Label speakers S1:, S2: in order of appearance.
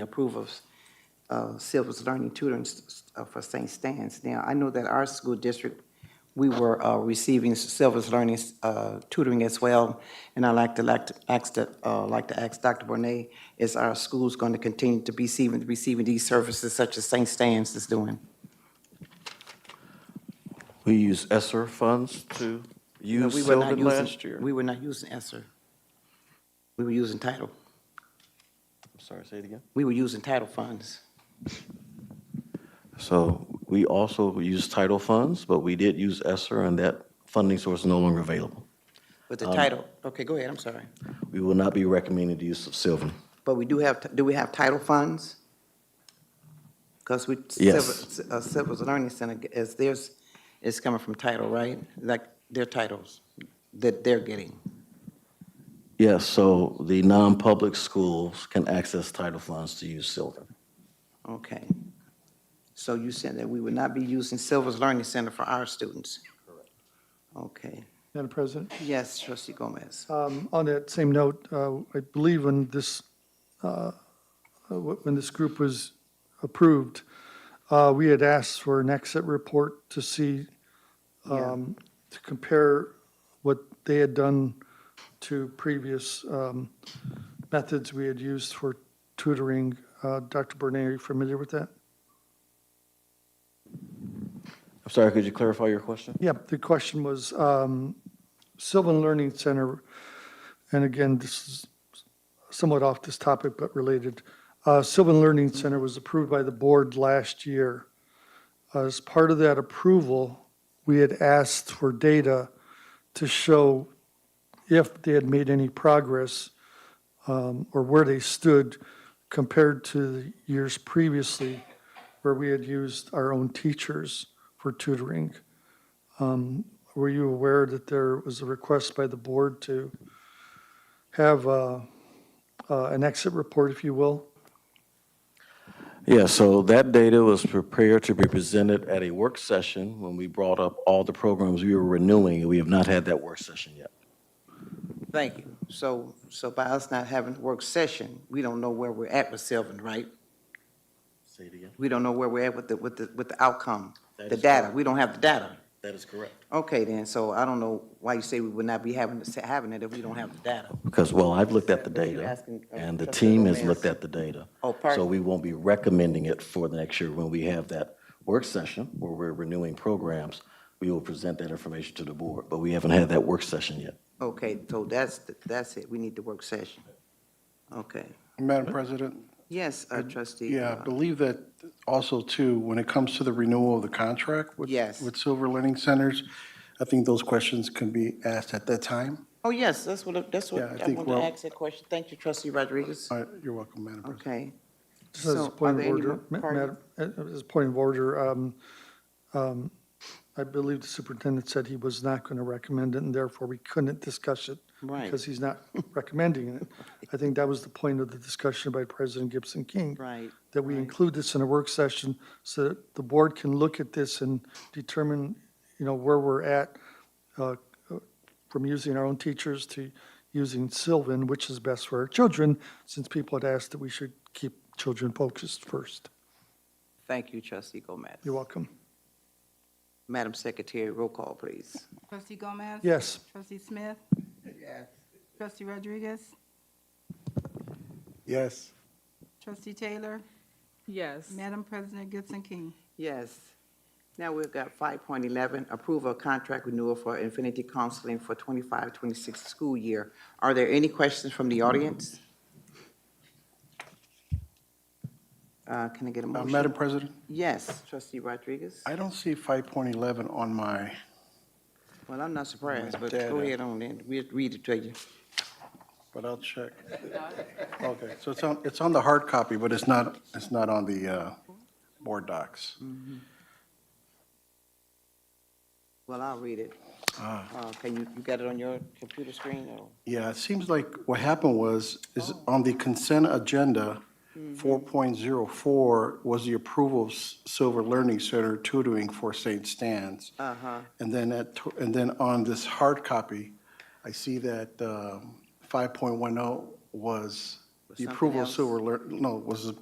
S1: approve of uh, Silver's Learning Tutoring s- s- uh, for St. Stan's. Now, I know that our school district, we were uh, receiving Silver's Learning uh, Tutoring as well, and I'd like to, like to ask, the- uh, like to ask Dr. Bonet, is our schools going to continue to be receiving, receiving these services such as St. Stan's is doing?
S2: We use ESSER funds to
S1: No,
S2: use
S1: we were not
S2: Sylvan
S1: using.
S2: last year.
S1: We were not using ESSER. We were using title.
S2: I'm sorry, say it again.
S1: We were using title funds.
S2: So we also use title funds, but we did use ESSER, and that funding source is no longer available.
S1: But
S2: Um,
S1: the title, okay, go ahead, I'm sorry.
S2: We will not be recommending the use of Sylvan.
S1: But we do have, do we have title funds? Because we.
S2: Yes.
S1: Silver- uh, Silver's Learning Center is theirs, is coming from title, right? Like their titles that they're getting.
S2: Yes, so the non-public schools can access title funds to use Sylvan.
S1: Okay. So you said that we would not be using Silver's Learning Center for our students? Correct. Okay.
S3: Madam President,
S1: Yes, trustee Gomez.
S3: um, on that same note, uh, I believe when this, uh, uh, wh- when this group was approved, uh, we had asked for an exit report to see,
S1: Yeah.
S3: um, to compare what they had done to previous um, methods we had used for tutoring. Uh, Dr. Bernay, are you familiar with that?
S2: I'm sorry, could you clarify your question?
S3: Yeah, the question was um, Sylvan Learning Center, and again, this is somewhat off this topic but related. Uh, Sylvan Learning Center was approved by the board last year. As part of that approval, we had asked for data to show if they had made any progress um, or where they stood compared to the years previously where we had used our own teachers for tutoring. Were you aware that there was a request by the board to have uh, uh, an exit report, if you will?
S2: Yeah, so that data was prepared to be presented at a work session when we brought up all the programs we were renewing, and we have not had that work session yet.
S1: Thank you. So, so by us not having a work session, we don't know where we're at with Sylvan, right?
S2: Say it again.
S1: We don't know where we're at with the, with the, with the outcome,
S2: That
S1: the
S2: is
S1: data.
S2: correct.
S1: We don't have the data.
S2: That is correct.
S1: Okay, then, so I don't know why you say we would not be having, having it if we don't have the data.
S2: Because, well, I've looked at the
S1: But you're
S2: data,
S1: asking, uh,
S2: and the
S1: Trustee
S2: team has
S1: Gomez.
S2: looked at the data.
S1: Oh, pardon.
S2: So we won't be recommending it for the next year. When we have that work session where we're renewing programs, we will present that information to the board, but we haven't had that work session yet.
S1: Okay, so that's, the- that's it. We need the work session. Okay.
S4: Madam President?
S1: Yes, uh, trustee.
S4: Yeah, I
S1: uh,
S4: believe that also too, when it comes to the renewal of the contract with,
S1: Yes.
S4: with Silver Learning Centers, I think those questions can be asked at that time.
S1: Oh, yes, that's what, that's what,
S4: Yeah, I
S1: I
S4: think
S1: wanted to
S4: we're-
S1: ask that question. Thank you, trustee Rodriguez.
S4: All right, Uh, You're welcome, Madam President.
S1: Okay.
S3: Just as
S1: So,
S3: a
S1: are
S3: point of
S1: there any
S3: order,
S1: more-
S3: ma-
S1: pardon?
S3: Madam, uh, as a point of order, um, um, I believe the superintendent said he was not going to recommend it, and therefore we couldn't discuss it
S1: Right,
S3: because he's not recommending it. I think that was the point of the discussion by President Gibson King.
S1: right.
S3: that we
S1: Right.
S3: include this in a work session so that the board can look at this and determine, you know, where we're at uh, from using our own teachers to using Sylvan, which is best for our children, since people had asked that we should keep children focused first.
S1: Thank you, trustee Gomez.
S3: You're welcome.
S1: Madam Secretary, roll call, please.
S5: Trustee Gomez?
S3: Yes.
S5: Trustee Smith?
S1: Yes.
S5: Trustee Rodriguez?
S4: Yes.
S5: Trustee Taylor?
S6: Yes.
S5: Madam President Gibson King?
S1: Yes. Now we've got five point eleven, approve a contract renewal for Infinity Counseling for 25-26 school year. Are there any questions from the audience? Uh, can I get a
S4: Uh,
S1: motion?
S4: Madam President,
S1: Yes, trustee Rodriguez.
S4: I don't see 5.11 on my,
S1: Well, I'm not surprised, but
S4: Data.
S1: go ahead on then. We'll read it to you.
S4: Ah. but I'll check. Okay, so it's on, it's on the hard copy, but it's not, it's not on the uh, board docs.
S1: Well, I'll read it. Uh, can you, you got it on your computer screen or?
S4: Yeah, it seems like what happened was, is
S1: Oh.
S4: on the consent agenda,
S1: Hmm.
S4: 4.04 was the approval of S- Silver Learning Center tutoring for St. Stan's.
S1: Uh-huh.
S4: And then at, tw- and then on this hard copy, I see that um, 5.10 was the
S1: something
S4: approval of
S1: else.
S4: Silver Learn, no, was the